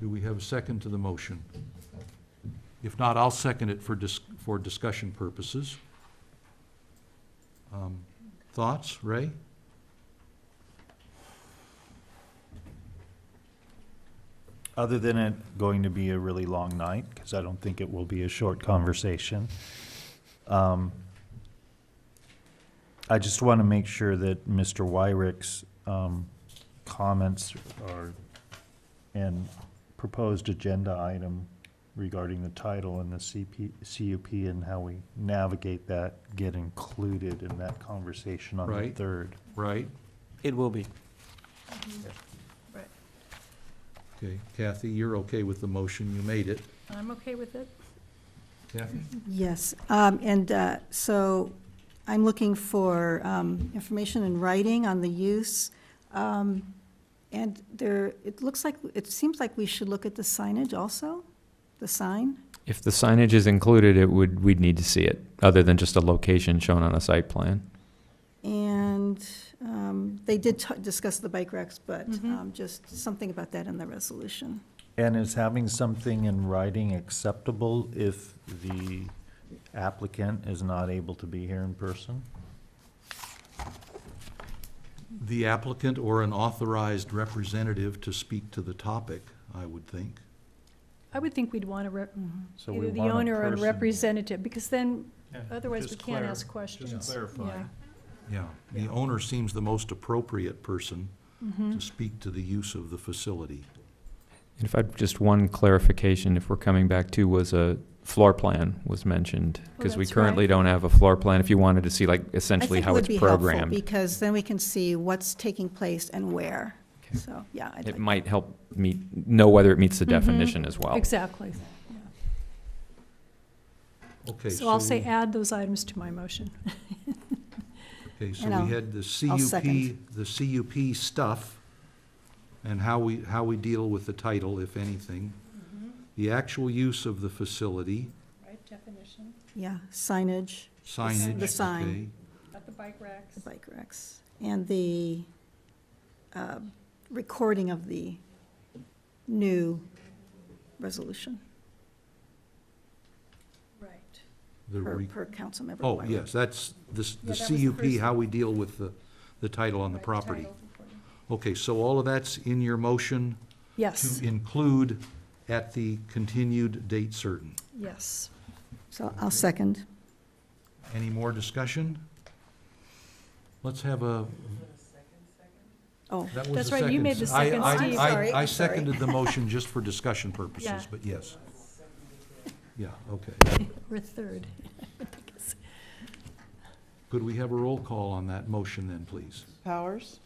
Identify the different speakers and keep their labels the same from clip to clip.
Speaker 1: Do we have a second to the motion? If not, I'll second it for dis, for discussion purposes. Um, Thoughts, Ray?
Speaker 2: Other than it going to be a really long night, because I don't think it will be a short conversation, um, I just want to make sure that Mr. Wyrick's um, comments are, and proposed agenda item regarding the title and the CP, CUP and how we navigate that get included in that conversation on the
Speaker 1: Right.
Speaker 2: third.
Speaker 1: Right?
Speaker 3: It will be.
Speaker 4: Right,
Speaker 1: Okay, Kathy, you're okay with the motion, you made it.
Speaker 4: I'm okay with it.
Speaker 1: Kathy?
Speaker 5: Yes, um, and uh, so I'm looking for um, information in writing on the use. Um, And there, it looks like, it seems like we should look at the signage also, the sign.
Speaker 6: If the signage is included, it would, we'd need to see it, other than just a location shown on a site plan.
Speaker 5: And um, they did t- discuss the bike racks, but
Speaker 6: Mm-hmm.
Speaker 4: Mhm.
Speaker 5: um, just something about that in the resolution.
Speaker 2: And is having something in writing acceptable if the applicant is not able to be here in person?
Speaker 1: The applicant or an authorized representative to speak to the topic, I would think.
Speaker 4: I would think we'd want to rep,
Speaker 2: So we
Speaker 4: either the
Speaker 2: want a
Speaker 4: owner or a
Speaker 2: person-
Speaker 4: representative, because then, otherwise we can't ask questions. Yeah.
Speaker 1: Yeah, the owner seems the most appropriate person
Speaker 4: Mm-hmm.
Speaker 1: to speak to the use of the facility.
Speaker 6: And if I, just one clarification, if we're coming back to, was a floor plan was mentioned,
Speaker 4: Oh,
Speaker 6: because we
Speaker 4: that's right.
Speaker 6: currently don't have a floor plan, if you wanted to see like
Speaker 5: I
Speaker 6: essentially
Speaker 5: think it
Speaker 6: how
Speaker 5: would
Speaker 6: it's
Speaker 5: be helpful,
Speaker 6: programmed.
Speaker 5: Because then we can see what's taking place and where.
Speaker 6: Okay.
Speaker 5: So, yeah. I'd
Speaker 6: It
Speaker 5: like- Mm-hmm.
Speaker 6: might help meet, know whether it meets the
Speaker 4: Mhm.
Speaker 6: definition as well.
Speaker 4: Exactly.
Speaker 1: Okay,
Speaker 4: So I'll say
Speaker 1: we-
Speaker 4: add those items to my motion.
Speaker 1: Okay, so
Speaker 5: And I'll-
Speaker 1: we had the
Speaker 5: I'll
Speaker 1: CUP,
Speaker 5: second.
Speaker 1: the CUP stuff, and how we, how we deal with the title, if anything. The actual use of the facility,
Speaker 4: Right, definition,
Speaker 5: Yeah, signage.
Speaker 1: signage,
Speaker 5: The sign.
Speaker 1: okay.
Speaker 4: not the bike racks.
Speaker 5: The bike racks, and the uh, recording of the new resolution
Speaker 4: Right.
Speaker 1: The
Speaker 5: per,
Speaker 1: re-
Speaker 5: per council member.
Speaker 1: Oh,
Speaker 5: Wyrick.
Speaker 1: yes, that's, this-
Speaker 4: Yeah,
Speaker 1: the
Speaker 4: that was the
Speaker 1: CUP,
Speaker 4: first
Speaker 1: how we deal with the, the title on the property. Okay, so all of that's in your motion
Speaker 4: Yes,
Speaker 1: to include at the continued date certain.
Speaker 4: yes.
Speaker 5: So I'll second.
Speaker 1: Any more discussion? Let's have a,
Speaker 5: Oh,
Speaker 1: that was
Speaker 4: That's
Speaker 1: the
Speaker 4: right, you made the
Speaker 1: I-
Speaker 4: second,
Speaker 1: I-
Speaker 4: Steve.
Speaker 1: I-
Speaker 5: Sorry,
Speaker 1: I
Speaker 5: I'm sorry.
Speaker 1: seconded the motion just for discussion
Speaker 4: Yeah.
Speaker 1: purposes, but yes. Yeah, okay.
Speaker 4: We're third.
Speaker 1: Could we have a roll call on that motion then, please?
Speaker 7: Powers,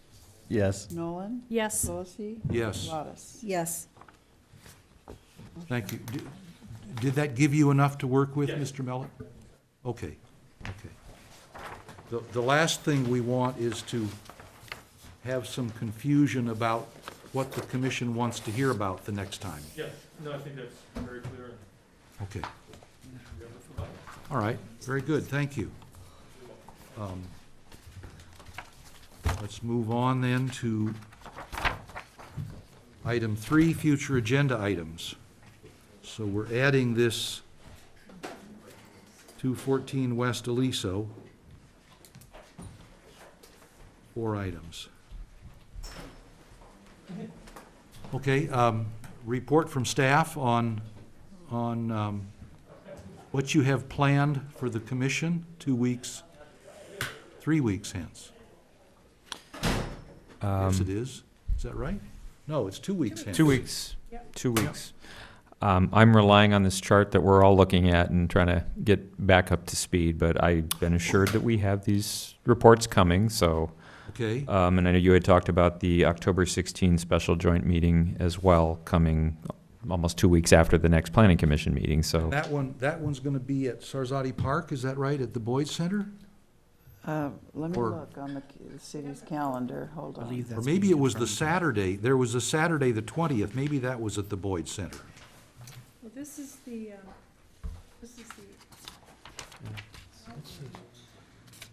Speaker 2: Yes.
Speaker 7: Nolan,
Speaker 4: Yes,
Speaker 7: Solacey,
Speaker 1: Yes,
Speaker 7: Lottis.
Speaker 5: yes,
Speaker 1: thank you. Did- Did that give you enough to work with, Mr. Mellon? Okay, okay. The, the last thing we want is to have some confusion about what the commission wants to hear about the next time.
Speaker 8: Yes, no, I think that's very clear.
Speaker 1: Okay. All right, very good, thank you. Um, Let's move on then to item three, future agenda items. So we're adding this 214 West Aliso, four items. Okay, um, report from staff on, on um, what you have planned for the commission, two weeks, three weeks hence.
Speaker 6: Um,
Speaker 1: Yes, it is. Is that right? No, it's two weeks hence.
Speaker 6: Two weeks, two weeks. Um, I'm relying on this chart that we're all looking at and trying to get back up to speed, but I've been assured that we have these reports coming, so.
Speaker 1: Okay,
Speaker 6: Um, and I know you had talked about the October 16 special joint meeting as well, coming almost two weeks after the next planning commission meeting, so.
Speaker 1: that one, that one's gonna be at Sarzati Park, is that right, at the Boyd Center?
Speaker 7: Uh, Let me
Speaker 1: Or-
Speaker 7: look on the c- the city's calendar, hold on.
Speaker 1: Or maybe it was the Saturday, there was a Saturday, the twentieth, maybe that was at the Boyd Center.
Speaker 4: Well, this is the, um, this is the,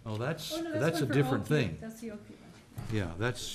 Speaker 1: Oh, that's,
Speaker 4: oh, no,
Speaker 1: that's a
Speaker 4: one for
Speaker 1: different
Speaker 4: Oakview.
Speaker 1: thing.
Speaker 4: That's the Oakview one.
Speaker 1: Yeah, that's,